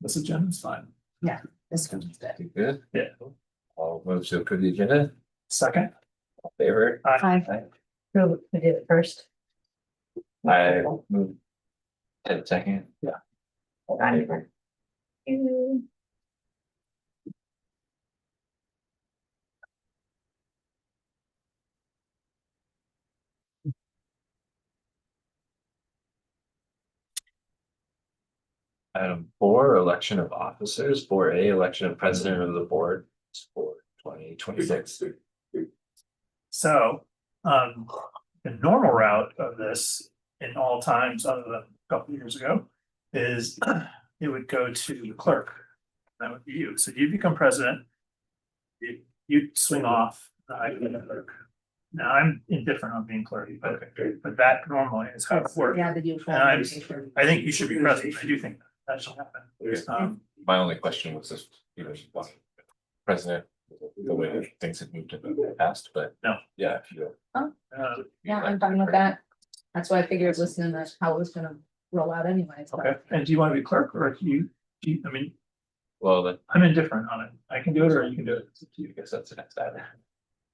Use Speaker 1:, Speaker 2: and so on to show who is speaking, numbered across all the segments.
Speaker 1: This agenda's fine.
Speaker 2: This one's good.
Speaker 3: You Good.
Speaker 1: Yeah.
Speaker 3: All move to approve the agenda,
Speaker 1: Second,
Speaker 3: All in favor,
Speaker 2: Hi. Who, who did it first?
Speaker 3: I move. Ted second.
Speaker 1: Yeah.
Speaker 3: All in favor?
Speaker 2: Aye. You.
Speaker 3: Item four, election of officers, four A, election of president of the board, for twenty twenty six.
Speaker 1: so, um, the normal route of this in all times other than a couple of years ago. Is it would go to the clerk. That would be you. So you become president. You, you swing off, I become the clerk. Now, I'm indifferent on being clerk, but, but that normally is how it works.
Speaker 2: Yeah, the usual.
Speaker 1: And I'm- I think you should be president. I do think that should happen. Um,
Speaker 3: My only question was if, you know, you want president, the way that things have moved in the past, but.
Speaker 1: No.
Speaker 3: Yeah, if you.
Speaker 1: uh,
Speaker 2: Yeah, I'm fine with that. That's why I figured listening to how it was gonna roll out anyway. so. Um,
Speaker 1: Okay, and do you want to be clerk or do you, do you, I mean,
Speaker 3: Well, then,
Speaker 1: I'm indifferent on it. I can do it or you can do it.
Speaker 3: it's up to you. I guess that's the next item.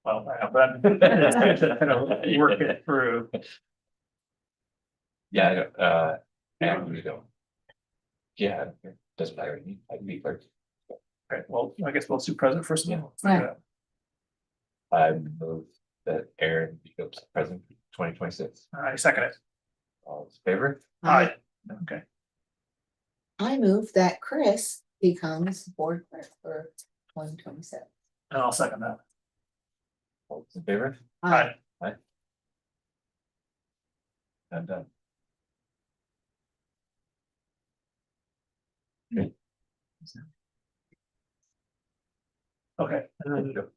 Speaker 1: Well, I know, but I'm- it's good to kind of work it through.
Speaker 3: Yeah, I don't, uh, I really don't. Yeah, it doesn't matter to me, I can be clerk.
Speaker 1: Okay, well, I guess we'll do president first. and then we'll
Speaker 2: Yeah.
Speaker 1: figure it out.
Speaker 3: I move that Aaron becomes president twenty twenty six,
Speaker 1: I second it.
Speaker 3: all in favor?
Speaker 1: Aye. Okay,
Speaker 2: I move that Chris becomes board clerk for twenty twenty seven.
Speaker 1: and I'll second that.
Speaker 3: All those in favor?
Speaker 2: Um,
Speaker 1: Aye.
Speaker 3: I'm done.
Speaker 1: Okay, and then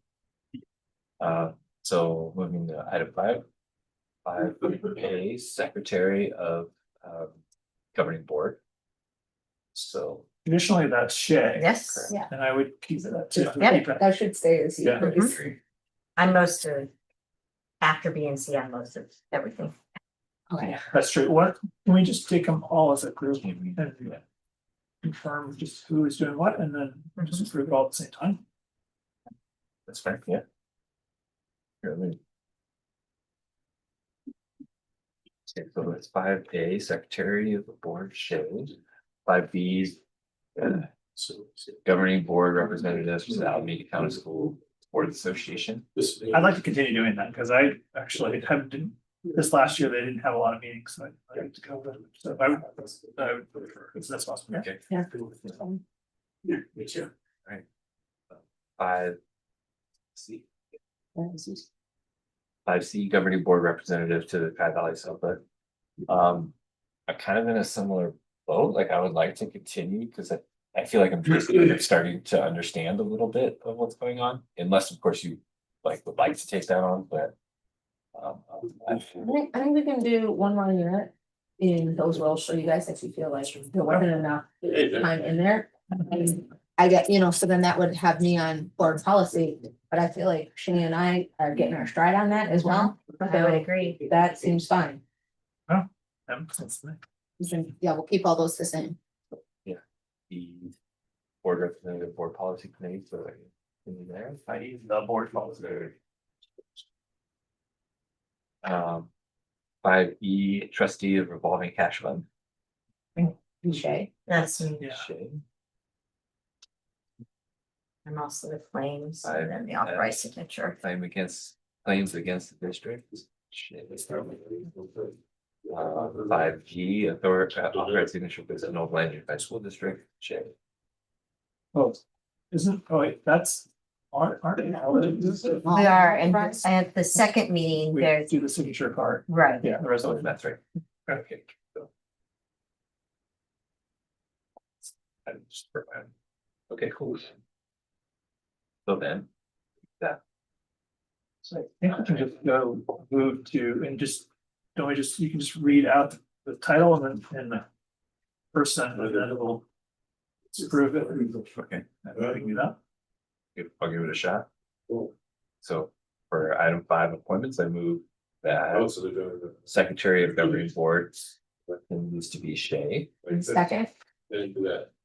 Speaker 3: Uh, so moving to item five. Five A, Secretary of um Governing Board. So,
Speaker 1: traditionally that's Shay.
Speaker 4: Yes, yeah,
Speaker 1: And I would keep it that too.
Speaker 2: Yeah, that should stay as you.
Speaker 1: Yeah. Mm-hmm.
Speaker 4: I'm most of, after B and C, I'm most of everything.
Speaker 2: Okay,
Speaker 1: That's true. What, can we just take them all as a group
Speaker 3: can we-
Speaker 1: and confirm just who is doing what and then just approve it all at the same time?
Speaker 3: that's fair, yeah. Here, let me- Okay, So it's five A, Secretary of the Board shows, five B's. So Governing Board Representatives to the Alameda County School Board Association.
Speaker 1: I'd like to continue doing that because I actually have, didn't, this last year, they didn't have a lot of meetings, so I like to go with it. So I would, I would prefer, if that's possible. yeah.
Speaker 3: Okay.
Speaker 2: Yeah.
Speaker 1: Yeah, me too.
Speaker 3: Five. C.
Speaker 2: that was useful.
Speaker 3: five C E governing board representative to the Pat Valley Summit. Um, I'm kind of in a similar boat, like I would like to continue because I, I feel like I'm just kind of starting to understand a little bit of what's going on, unless of course you like would like to take that on, but. Um, I-
Speaker 2: I think, I think we can do one more unit in those roles, show you guys if you feel like there wasn't enough time in there. And I get, you know, so then that would have me on board policy, but I feel like Shani and I are getting our stride on that as well.
Speaker 4: I would agree.
Speaker 2: That seems fine.
Speaker 1: Um, that's nice.
Speaker 2: We can- Yeah, we'll keep all those the same.
Speaker 3: the board representative, board policy committee, so like, in there,
Speaker 1: I need the board policy.
Speaker 3: um. Five E trustee of revolving cash fund.
Speaker 2: Shay,
Speaker 4: That's, me.
Speaker 1: Yeah.
Speaker 3: Shay.
Speaker 4: I'm also the claims
Speaker 3: I-
Speaker 4: and then the authorized signature.
Speaker 3: claim against, claims against the district. Shit. Uh, five G, authority, authorized signature for the North Land Unified School District, shit.
Speaker 1: Oh, isn't, oh wait, that's, aren't, aren't. they all in this?
Speaker 4: We are, and
Speaker 2: Authorized.
Speaker 4: at the second meeting,
Speaker 1: We
Speaker 4: there's,
Speaker 1: do the signature card,
Speaker 4: right,
Speaker 1: yeah, the
Speaker 3: So
Speaker 1: resolution.
Speaker 3: that's right. Okay. so. I'm just- Okay, cool. So then,
Speaker 1: So I think we can just go move to and just, don't we just, you can just read out the title and then and the person and then it will prove it.
Speaker 3: okay,
Speaker 1: We can do that.
Speaker 3: if- I'll give it a shot. So for item five appointments, I move that Secretary of Governing Boards needs to be Shay.
Speaker 2: second,
Speaker 5: Then do that.